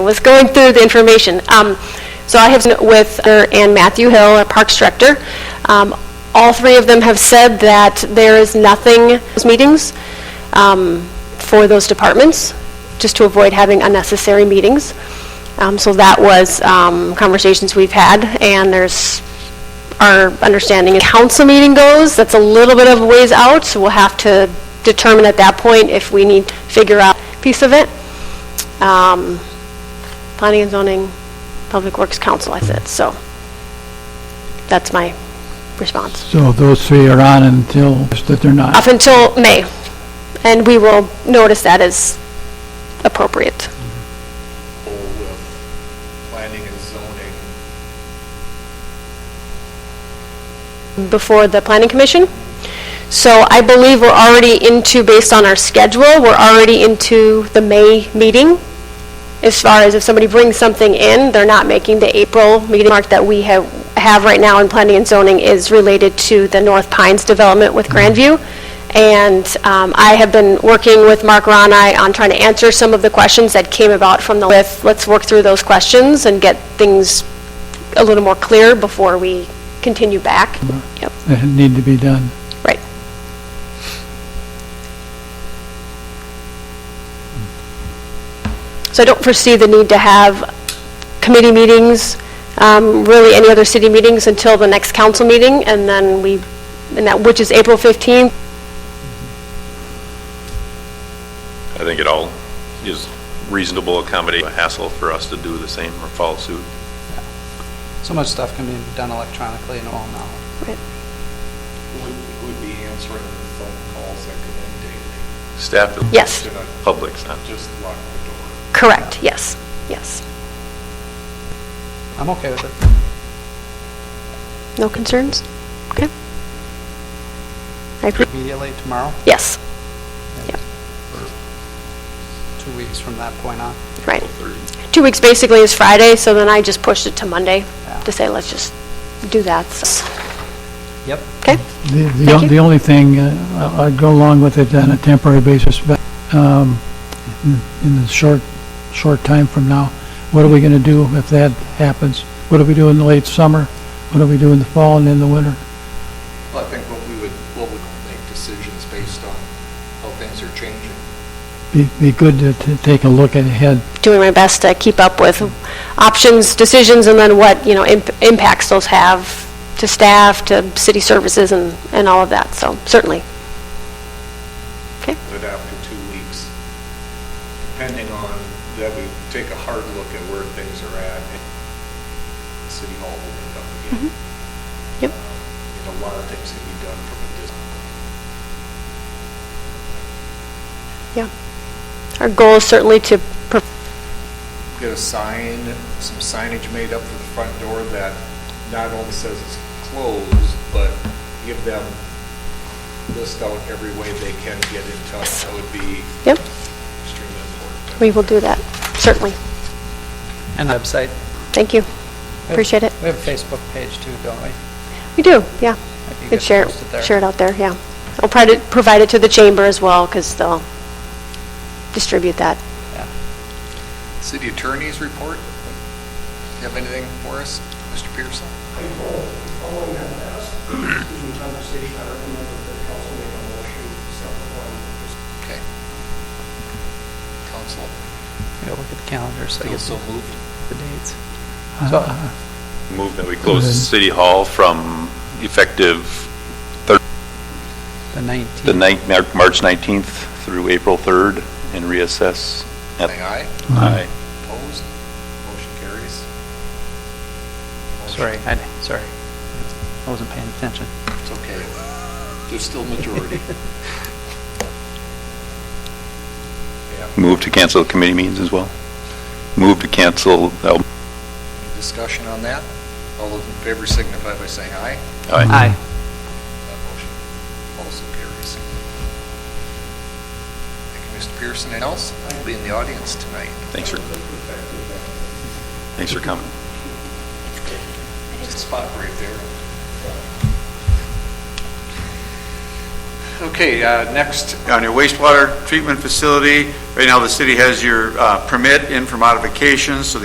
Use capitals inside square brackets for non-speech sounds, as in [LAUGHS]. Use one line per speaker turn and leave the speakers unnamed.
was going through the information. Um, So I have been with her and Matthew Hill, our Parks Director. Um, All three of them have said that there is nothing, those meetings um, for those departments, just to avoid having unnecessary meetings. Um, So that was um, conversations we've had, and there's, our understanding is council meeting goes, that's a little bit of a ways out, so we'll have to determine at that point if we need to figure out a piece of it. Um, Planning and Zoning, Public Works Council, I said, so that's my response.
So those three are on until, just that they're not.
Up until May, and we will notice that as appropriate.
full with planning and zoning.
before the planning commission. So I believe we're already into, based on our schedule, we're already into the May meeting. As far as if somebody brings something in, they're not making the April meeting mark that we have, have right now in planning and zoning is related to the North Pines development with Grandview. And um, I have been working with Mark Ronai on trying to answer some of the questions that came about from the, with, let's work through those questions and get things a little more clear before we continue back. Yep.
that need to be done.
Right. So I don't foresee the need to have committee meetings, um, really any other city meetings until the next council meeting, and then we, and that, which is April 15th.
I think it all is reasonable accommodate, a hassle for us to do the same or follow suit.
So much stuff can be done electronically and all now.
Would, would be answering the phone calls that come in daily,
Staff. is-
Yes.
to not
Public's not.
just lock the door.
Correct, yes, yes.
I'm okay with it.
No concerns? Okay. I agree,
Immediately tomorrow,
yes,
two weeks from that point on.
right.
12:30.
Two weeks basically is Friday, so then I just pushed it to Monday
Yeah.
to say, let's just do that. So-
Yep.
Okay?
The- The,
Thank
o-
you.
the only thing, uh, I- I'd go along with it on a temporary basis, but um, in- in the short, short time from now, what are we going to do if that happens? What do we do in the late summer? What do we do in the fall and in the winter?
Well, I think what we would, what would make decisions based on how things are changing.
Be, be good to, to take a look ahead.
doing my best to keep up with options, decisions, and then what, you know, imp- impacts those have to staff, to city services, and, and all of that, so certainly.
But after two weeks, depending on, that we take a hard look at where things are at and city hall opened up
Mm-hmm.
again.
Yep.
And a lot of things can be done from a distance.
Our goal is certainly to, pro-
Get a sign, some signage made up for the front door that not only says it's closed, but give them, list out every way they can get in touch. That would be
Yep.
extremely important.
we will do that, certainly.
And website.
Thank you, appreciate it.
We have a Facebook page too, don't we?
We do, yeah,
If you
and
could
share,
post it there.
it- share it out there, yeah. I'll probably provide it to the chamber as well, because they'll distribute that.
City Attorney's report? You have anything for us, Mr. Pearson?
Following that last, [CLEARS THROAT] excuse me, conversation, I recommend that the council make a motion separate one.
Okay. Council,
Go look at the calendar so you
feel
get
so moved?
the dates.
Uh,
So-
uh,
Move that we close
Then-
City Hall from effective
The
the
19th.
ninth, Mar- March 19th through April 3rd and reassess. at-
Say aye.
Aye.
Opposed? Motion carries. Motion-
Sorry, I, sorry. I wasn't paying attention.
It's okay. There's still majority. Yeah,
Move to cancel the committee meetings as well. Move to cancel, oh,
any [LAUGHS] discussion on that? All those in favor signify by saying aye.
aye.
Aye.
That motion also carries. Thank you, Mr. Pearson. Anyone else? I'll be in the audience tonight.
Thanks for, thanks for coming.
There's a spot right there. Okay, uh, next,
on your wastewater treatment facility. Right now, the city has your uh, permit in for modifications, so